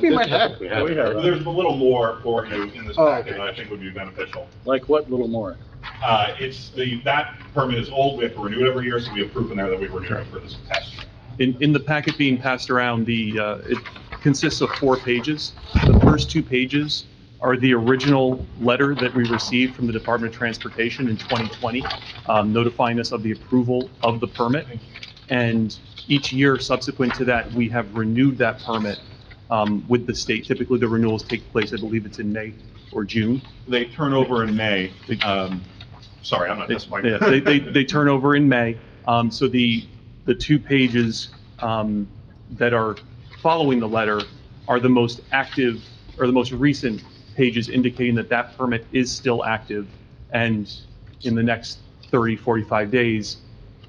We might have- have, we have. We have. There's a little more for you in this Oh, packet okay. that I think would be beneficial. Like what, little more? Uh, it's the, that permit is old, we have to renew it every year, so we have proof in there that we renewed it for this test. In, in the packet being passed around, the, uh, it consists of four pages. The first two pages are the original letter that we received from the Department of Transportation in 2020, um, notifying us of the approval of the permit. And each year subsequent to that, we have renewed that permit um, with the state. Typically, the renewals take place, I believe it's in May or June. They turn over in May, um, sorry, I'm not testifying. Yeah, They, they, they turn over in May. Um, so the, the two pages, um, that are following the letter are the most active, or the most recent pages indicating that that permit is still active. And in the next 30, 45 days,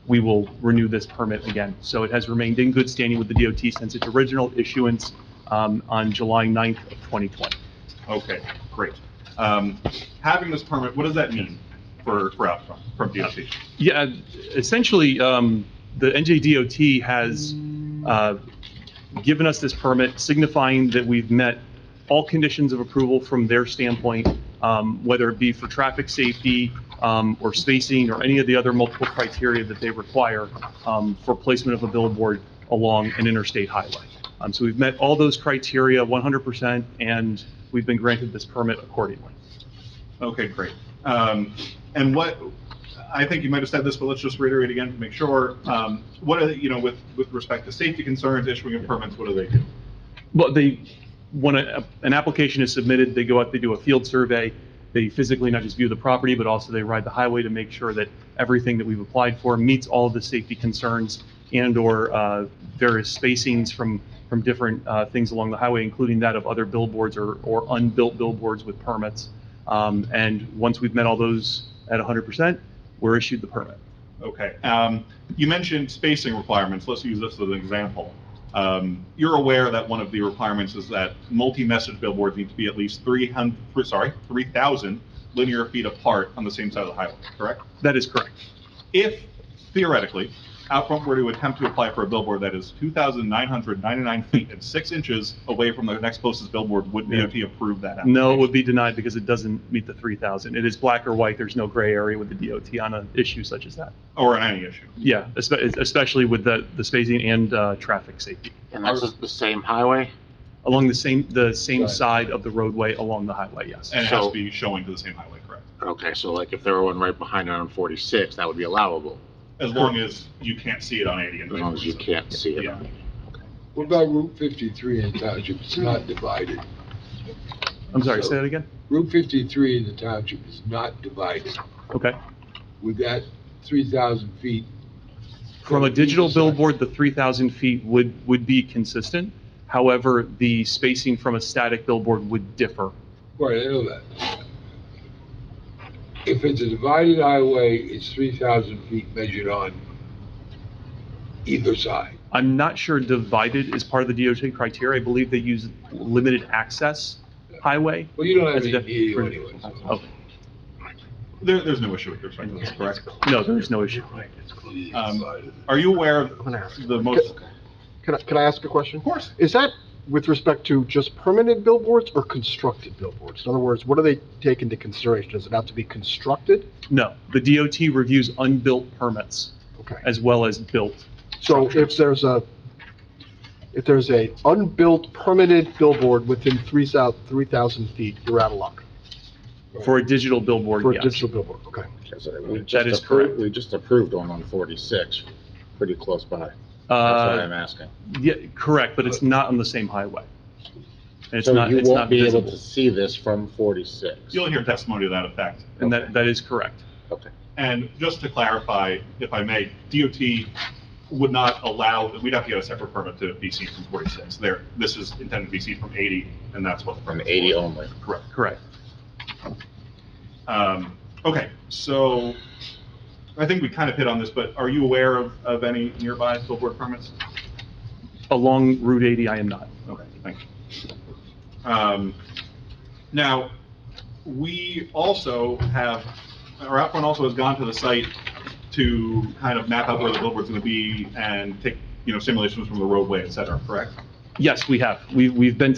we will renew this permit again. So it has remained in good standing with the DOT since its original issuance, um, on July 9th of 2020. Okay, great. Um, having this permit, what does that mean for, for Outfront, from DOT? Yeah, essentially, um, the NJDOT has, uh, given us this permit signifying that we've met all conditions of approval from their standpoint, um, whether it be for traffic safety, um, or spacing, or any of the other multiple criteria that they require, um, for placement of a billboard along an interstate highway. Um, so we've met all those criteria 100%, and we've been granted this permit accordingly. Okay, great. Um, and what, I think you might have said this, but let's just reiterate again to make sure. Um, what are, the- you know, with, with respect to safety concerns, issuing of permits, what do they do? Well, they, when a- an application is submitted, they go out, they do a field survey. They physically not just view the property, but also they ride the highway to make sure that everything that we've applied for meets all of the safety concerns and/or uh, various spacings from, from different uh, things along the highway, including that of other billboards or, or unbuilt billboards with permits. Um, And once we've met all those at 100%, we're issued the permit. Okay. Um, you mentioned spacing requirements. Let's use this as an example. Um, you're aware that one of the requirements is that multi-message billboards need to be at least 300, sorry, 3,000 linear feet apart on the same side of the highway, correct? That is correct. If theoretically, Outfront were to attempt to apply for a billboard that is 2,999 feet and 6 inches away from the next closest billboard, would Yeah. DOT approve that? No, it application? would be denied because it doesn't meet the 3,000. It is black or white, there's no gray area with the DOT on an issue such as that. Or on any issue? Yeah, espe- especially with the, the spacing and uh, traffic safety, And that's just the same highway? along the same, the same Right. side of the roadway along the highway, yes. And it has So- to be showing to the same highway, correct? Okay, so like if there were one right behind it on 46, that would be allowable, As long as you can't see it on 80 and as long as you 20. can't see it. Yeah. What about Route 53 in the township? It's not divided. I'm sorry, say that again? Route 53 in the township is not divided. Okay. Would that 3,000 feet? From a digital Sorry. billboard, the 3,000 feet would, would be consistent. However, the spacing from a static billboard would differ. Right, I know that. If it's a divided highway, it's 3,000 feet measured on either side. I'm not sure divided is part of the DOT criteria. I believe they use limited access highway. Well, you don't have That's any def- EU for- anyway. so- Okay. There, there's no issue with respect to this, correct? Oh, No, there is no issue. Um, Are you aware of the most, Can I, can I ask a question? of course, Is that with respect to just permanent billboards or constructed billboards? In other words, what do they take into consideration? Does it have to be constructed? No, the DOT reviews unbuilt permits Okay. as well as built. So if there's a, if there's a unbuilt permanent billboard within three thou, three thousand feet, you're out of luck For a digital for billboard, a yes. digital billboard, okay? That is correct. We just approved one on 46, pretty close by. That's what Uh, I'm asking. yeah, correct, but it's not on the same highway. And it's So not, you it's not won't be able to visible. see this from 46. you'll hear testimony to that effect. And that, that is correct. Okay. And just to clarify, if I may, DOT would not allow, we'd have to get a separate permit to be seen from 46. There, this is intended to be seen from 80, and that's what the From permit 80 only. Correct. Correct. Um, Okay, so I think we kind of hit on this, but are you aware of, of any nearby billboard permits? Along Route 80, I am not. Okay, thank you. Um, Now, we also have, our outfront also has gone to the site to kind of map out where the billboard's going to be and take, you know, simulations from the roadway, et cetera, correct? Yes, we have. We, we've been to